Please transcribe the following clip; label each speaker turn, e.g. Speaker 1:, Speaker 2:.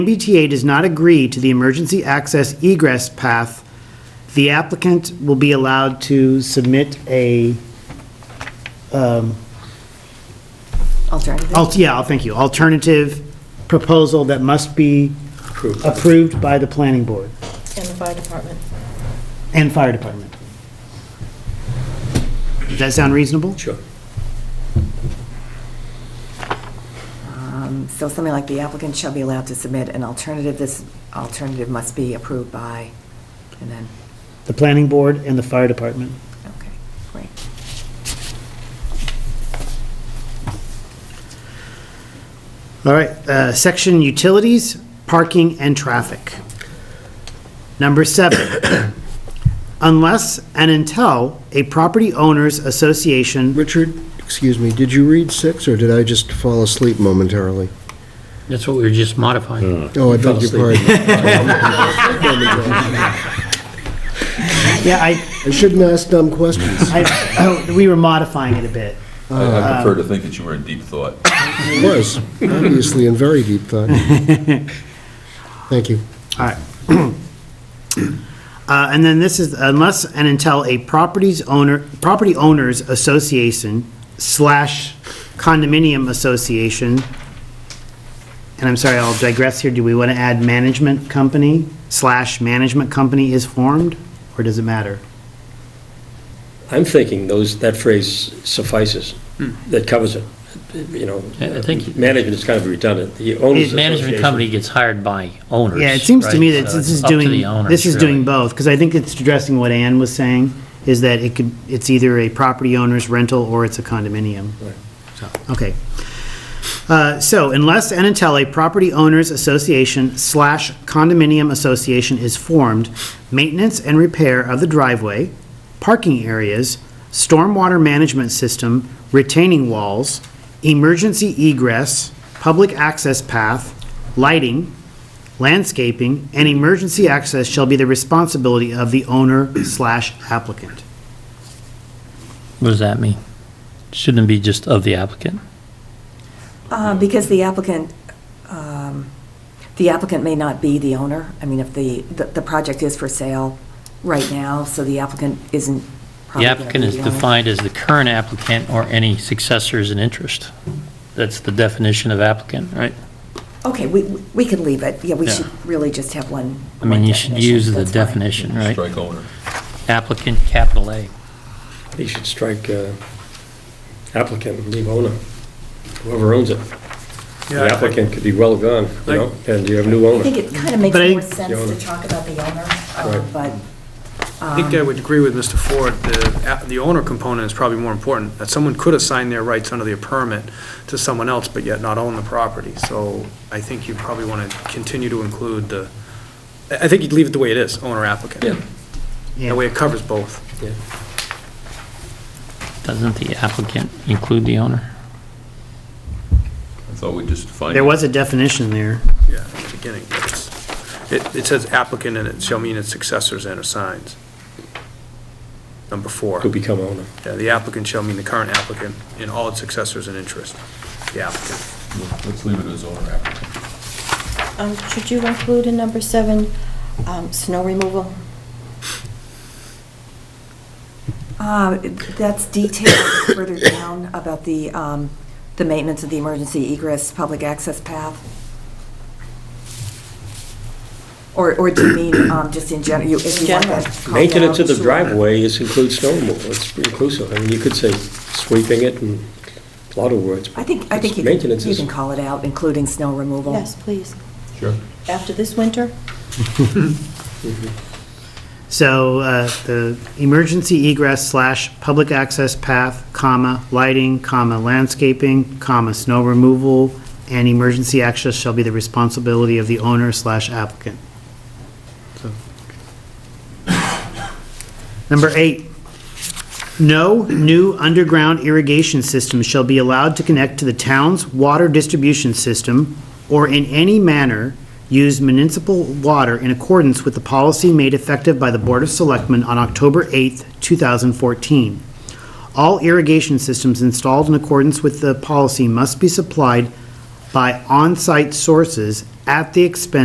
Speaker 1: MBTA does not agree to the emergency access egress path, the applicant will be allowed to submit a,
Speaker 2: Alternative.
Speaker 1: al- yeah, I'll- thank you, alternative proposal that must be approved by the planning board
Speaker 3: And the fire department.
Speaker 1: and fire department. Does that sound reasonable?
Speaker 4: Sure.
Speaker 2: Um, So something like the applicant shall be allowed to submit an alternative, this alternative must be approved by, and then,
Speaker 1: The planning board and the fire department.
Speaker 2: okay, great.
Speaker 1: All right, uh, section utilities, parking and traffic. Number seven, unless and until a property owners association,
Speaker 5: Richard, excuse me, did you read six, or did I just fall asleep momentarily?
Speaker 4: That's what we were just
Speaker 1: Hmm.
Speaker 4: modifying.
Speaker 5: Oh, I beg your pardon.
Speaker 1: yeah, I,
Speaker 5: I shouldn't ask dumb questions.
Speaker 1: I, oh, we were modifying it a bit.
Speaker 6: I
Speaker 1: Uh,
Speaker 6: I prefer to think that you were in deep thought.
Speaker 5: It was, obviously, in very deep thought. Thank you.
Speaker 1: All right. Uh, And then this is unless and until a properties owner, property owners association slash condominium association, and I'm sorry, I'll digress here, do we want to add management company slash management company is formed, or does it matter?
Speaker 4: I'm thinking those, that phrase suffices, that covers it, you know.
Speaker 7: Hmm. I- I think-
Speaker 4: Management is kind of redundant. The owners
Speaker 7: The management
Speaker 4: association-
Speaker 7: company gets hired by owners.
Speaker 1: Yeah, it seems to me
Speaker 7: right?
Speaker 1: that
Speaker 7: So
Speaker 1: this is
Speaker 7: it's up to the
Speaker 1: doing,
Speaker 7: owners,
Speaker 1: this is doing
Speaker 7: really.
Speaker 1: both, because I think it's addressing what Ann was saying, is that it could, it's either a property owner's rental or it's a condominium. So, Okay. Uh, So unless and until a property owners association slash condominium association is formed, maintenance and repair of the driveway, parking areas, stormwater management system, retaining walls, emergency egress, public access path, lighting, landscaping, and emergency access shall be the responsibility of the owner slash applicant.
Speaker 7: What does that mean? Shouldn't it be just of the applicant?
Speaker 2: Uh, Because the applicant, um, the applicant may not be the owner. I mean, if the, the the project is for sale right now, so the applicant isn't probably
Speaker 7: The
Speaker 2: gonna
Speaker 7: applicant
Speaker 2: be
Speaker 7: is
Speaker 2: the owner.
Speaker 7: defined as the current applicant or any successors in interest. That's the definition of applicant, right?
Speaker 2: Okay, we, we can leave it. Yeah, we
Speaker 7: Yeah.
Speaker 2: should really just have one.
Speaker 7: I mean,
Speaker 2: one
Speaker 7: you should use the
Speaker 2: That's fine.
Speaker 7: definition, right?
Speaker 6: Strike owner.
Speaker 7: Applicant, capital A.
Speaker 4: You should strike uh, applicant and leave owner, whoever owns it. The applicant could be well gone, you know, and you have new
Speaker 2: I think
Speaker 4: owner.
Speaker 2: it kind of makes
Speaker 1: But I-
Speaker 2: more sense to talk about the owner, uh,
Speaker 4: Right.
Speaker 2: but
Speaker 8: I think I would agree with Mr. Ford, the, the owner component is probably more important, that someone could assign their rights under the permit to someone else, but yet not own the property. So I think you probably want to continue to include the, I I think you'd leave it the way it is, owner applicant.
Speaker 4: Yeah.
Speaker 8: That way it covers both.
Speaker 7: Doesn't the applicant include the owner?
Speaker 6: I thought we just defined.
Speaker 1: There was a definition there.
Speaker 8: Yeah, at the beginning. It's- It, it says applicant and it shall mean its successors and assigns. Number four,
Speaker 4: Could become owner.
Speaker 8: Yeah, the applicant shall mean the current applicant and all its successors and interest, the applicant.
Speaker 6: Let's leave it as owner applicant.
Speaker 3: Um, Should you include in number seven, um, snow removal?
Speaker 2: Uh, That's detailed further down about the, um, the maintenance of the emergency egress public access path. Or, or do you mean um, just in general? If you want that called out,
Speaker 4: Maintenance of the
Speaker 2: sure.
Speaker 4: driveway is includes snow removal, it's inclusive. I mean, you could say sweeping it and a lot of words.
Speaker 2: I think, I think you can,
Speaker 4: Maintenance
Speaker 2: you
Speaker 4: is-
Speaker 2: can call it out, including snow removal.
Speaker 3: Yes, please.
Speaker 6: Sure.
Speaker 3: After this winter?
Speaker 1: So uh, the emergency egress slash public access path, comma, lighting, comma, landscaping, comma, snow removal, and emergency access shall be the responsibility of the owner slash applicant. So. Number eight, no new underground irrigation system shall be allowed to connect to the town's water distribution system or in any manner use municipal water in accordance with the policy made effective by the Board of Selectmen on October 8, 2014. All irrigation systems installed in accordance with the policy must be supplied by on-site sources at the expense